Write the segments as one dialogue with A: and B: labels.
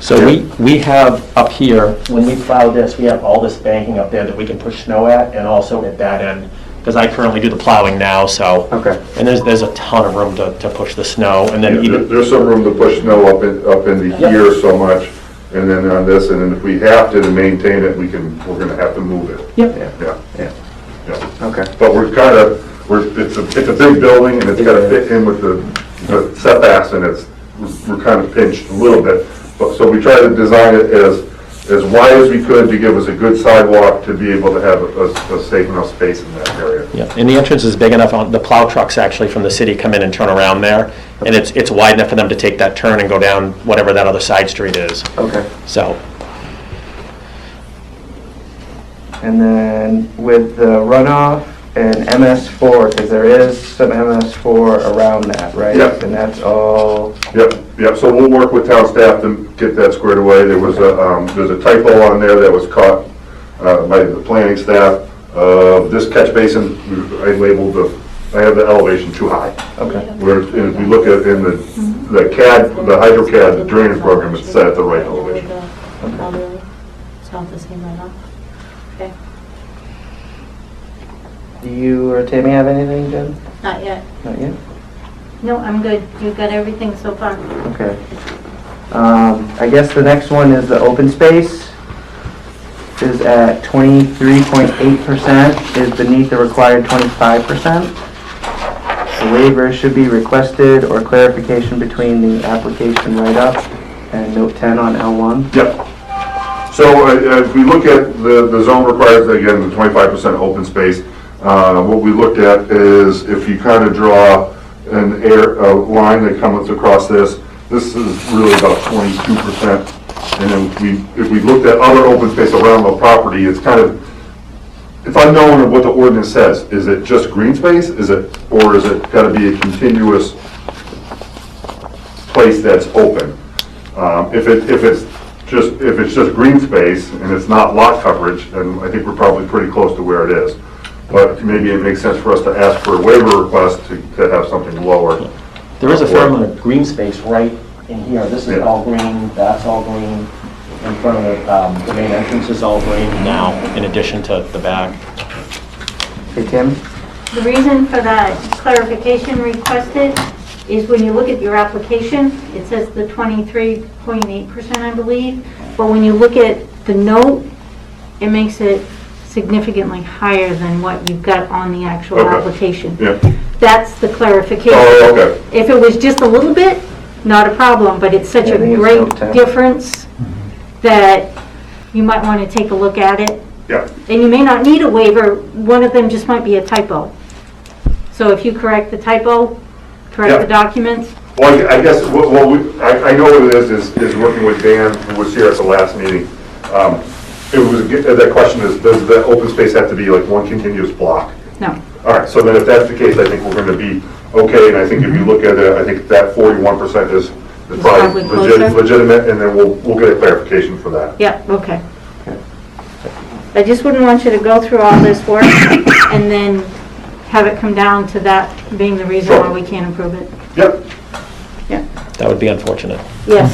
A: So we, we have up here, when we plow this, we have all this banking up there that we can push snow at and also at that end, because I currently do the plowing now, so.
B: Okay.
A: And there's, there's a ton of room to, to push the snow and then
C: There-
A: even,
C: There's some room to push snow up in, up into here so much, and then on this, and then if we have to to maintain it, we can, we're gonna have to move it.
A: Yep.
C: Yeah,
B: Yeah,
C: yeah.
B: okay.
C: But we're kind of, we're, it's a, it's a big building, and it's gotta fit in with the the setbacks, and it's, we're kind of pinched a little bit. But, so we tried to design it as, as wide as we could to give us a good sidewalk to be able to have a, a safe enough space in that area.
A: yeah, and the entrance is big enough, on- the plow trucks actually from the city come in and turn around there. And it's, it's wide enough for them to take that turn and go down whatever that other side street is,
B: Okay,
A: so.
B: and then with the runoff and MS4, because there is some MS4 around that, right?
C: Yep.
B: And that's all,
C: Yep, yep, so we'll work with town staff to get that squared away. There was a, um, there's a typo on there that was caught, uh, by the planning staff. Uh, this catch basin, I labeled the, I have the elevation too high.
B: okay,
C: Where, and if you look at, in the, the CAD, the HydroCAD, the drainage program is set at the right elevation.
D: It's not the same right now. Okay,
B: do you or Tammy have anything, Jen?
D: not yet.
B: Not yet?
D: No, I'm good. You've got everything so far.
B: Okay. Um, I guess the next one is the open space. Is at twenty-three point eight percent, is beneath the required twenty-five percent. The waiver should be requested or clarification between the application write-up and note ten on L one.
C: Yep. So uh, if we look at the, the zone requires, again, the twenty-five percent open space, uh, what we looked at is if you kind of draw an air, a line that comes across this, this is really about twenty-two percent. And then we, if we looked at other open space around the property, it's kind of, it's unknown of what the ordinance says. Is it just green space? Is it, or is it gotta be a continuous place that's open? Um, If it, if it's just, if it's just green space and it's not lot coverage, then I think we're probably pretty close to where it is. But maybe it makes sense for us to ask for a waiver request to, to have something lower.
A: There is a fair amount of green space right in here. This is
C: Yeah.
A: all green, that's all green. In front of the, um, the main entrance is all green now, in addition to the back.
B: Hey, Tim?
D: The reason for that clarification requested is when you look at your application, it says the 23.8%, I believe, but when you look at the note, it makes it significantly higher than what you've got on the actual
C: Okay.
D: application.
C: Yeah,
D: That's the clarification.
C: Oh, okay.
D: If it was just a little bit, not a problem, but it's such
B: Yeah, I
D: a
B: think it's
D: great
B: no tap.
D: difference that you might want to take a look at it.
C: yeah,
D: And you may not need a waiver, one of them just might be a typo. So if you correct the typo, correct the
C: Yeah.
D: documents,
C: well, I I guess, what, what we, I, I know what it is, is, is working with Dan, who was here at the last meeting. Um, It was, that question is, does the open space have to be like one continuous block?
D: no.
C: All right, so then if that's the case, I think we're going to be okay, and I think if you look at it, I think that forty-one percent is is probably
D: probably
C: legit-
D: closer.
C: legitimate, and then we'll, we'll get a clarification for that.
D: Yeah, okay. I just wouldn't want you to go through all this work and then have it come down to that being the reason why
C: Sure.
D: we can't approve it.
C: Yep,
A: That would be unfortunate.
D: Yes.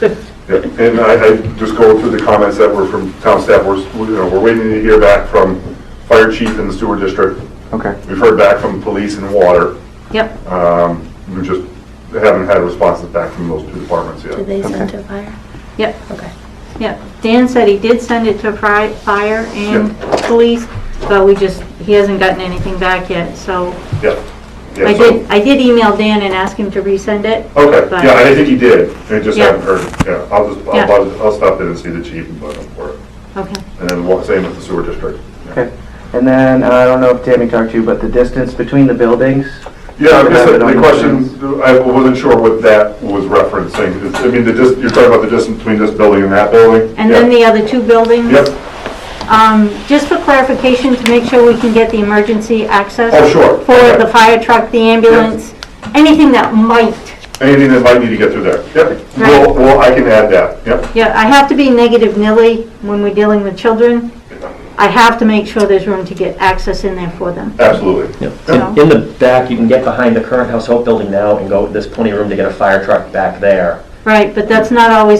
C: yep, and I, I just go through the comments that were from town staff, we're, s- we- you know, we're waiting to hear back from fire chief in the sewer district,
B: Okay.
C: we've heard back from police and water,
D: Yep.
C: um, we just haven't had responses back from those two departments yet.
E: Did they
B: Okay.
E: send to fire?
D: Yep.
E: Okay.
D: Yeah, Dan said he did send it to fri- fire and
C: Yeah.
D: police, but we just, he hasn't gotten anything back yet, so.
C: Yep. Yeah,
D: I
C: so-
D: did, I did email Dan and ask him to resend it.
C: Okay,
D: but-
C: yeah, I think he did, I just
D: Yeah.
C: haven't heard, yeah, I'll just,
D: Yeah.
C: I'll, bug- I'll stop in and see the chief and bug him for it.
D: Okay,
C: And then wa- same with the sewer district. yeah.
B: Okay. And then, I don't know if Tammy talked to you, but the distance between the buildings?
C: Yeah, I guess
B: Have
C: the
B: it on
C: the
B: the
C: question, I wasn't sure what that was referencing. It's- I mean, the dis, you're talking about the distance between this building and that building?
D: and then the other two buildings?
C: Yep,
D: Um, just for clarification, to make sure we can get the emergency access.
C: Oh, sure.
D: For the fire truck, the ambulance, anything that might.
C: anything that might need to get through there, yep. Well,
D: Right.
C: well, I can add that, yep.
D: Yeah, I have to be negative nilly when we're dealing with children. I have to make sure there's room to get access in there for them.
C: Absolutely.
D: Yeah.
A: In in the back, you can get behind the current House Hope building now and go, there's plenty of room to get a fire truck back there.
D: Right, but that's not always